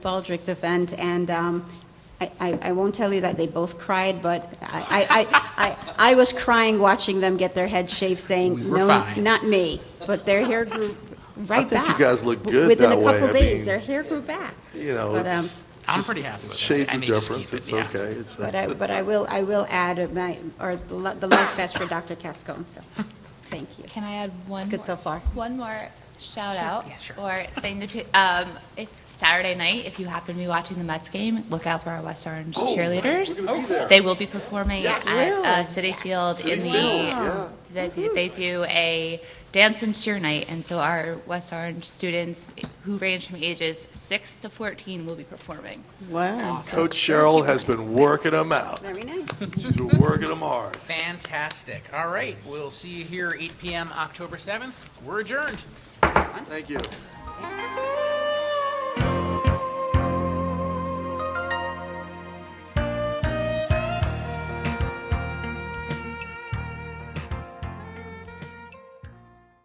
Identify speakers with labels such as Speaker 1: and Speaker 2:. Speaker 1: Baldrick's event, and um, I- I I won't tell you that they both cried, but I- I I- I I was crying watching them get their heads shaved,
Speaker 2: We
Speaker 1: saying,
Speaker 2: were
Speaker 1: "No,
Speaker 2: fine."
Speaker 1: not me." But their hair grew right
Speaker 3: think
Speaker 1: back.
Speaker 3: you guys look
Speaker 1: W-
Speaker 3: good that
Speaker 1: Within a
Speaker 3: way.
Speaker 1: couple
Speaker 3: I
Speaker 1: days,
Speaker 3: mean,
Speaker 1: their hair grew back.
Speaker 3: You know,
Speaker 1: But, um,
Speaker 3: it's
Speaker 2: I'm
Speaker 3: just
Speaker 2: pretty happy with it.
Speaker 3: shades
Speaker 2: I
Speaker 3: of
Speaker 2: may just keep
Speaker 3: difference.
Speaker 2: it,
Speaker 3: It's
Speaker 2: yeah.
Speaker 3: okay. It's
Speaker 1: But
Speaker 3: uh,
Speaker 1: I but I will I will add uh, my, or the lo- the Love Fest for Dr. Cascone, so, thank you.
Speaker 4: Can I add one?
Speaker 1: Good
Speaker 4: more-
Speaker 1: so far.
Speaker 4: One more shout
Speaker 2: Sure,
Speaker 4: out
Speaker 2: yeah, sure.
Speaker 4: or thing to, pe- um, if Saturday night, if you happen to be watching the Mets game, look out for our West Orange cheerleaders. They will be performing at uh, City Field in the. They, do- they do a dance and cheer night, and so our West Orange students who range from ages six to fourteen will be performing.
Speaker 1: Wow.
Speaker 3: Coach Cheryl has been working them out.
Speaker 1: Very nice.
Speaker 3: She's been working them hard.
Speaker 2: Fantastic. All right, we'll see you here 8 p.m. October 7th. We're adjourned.
Speaker 3: Thank you.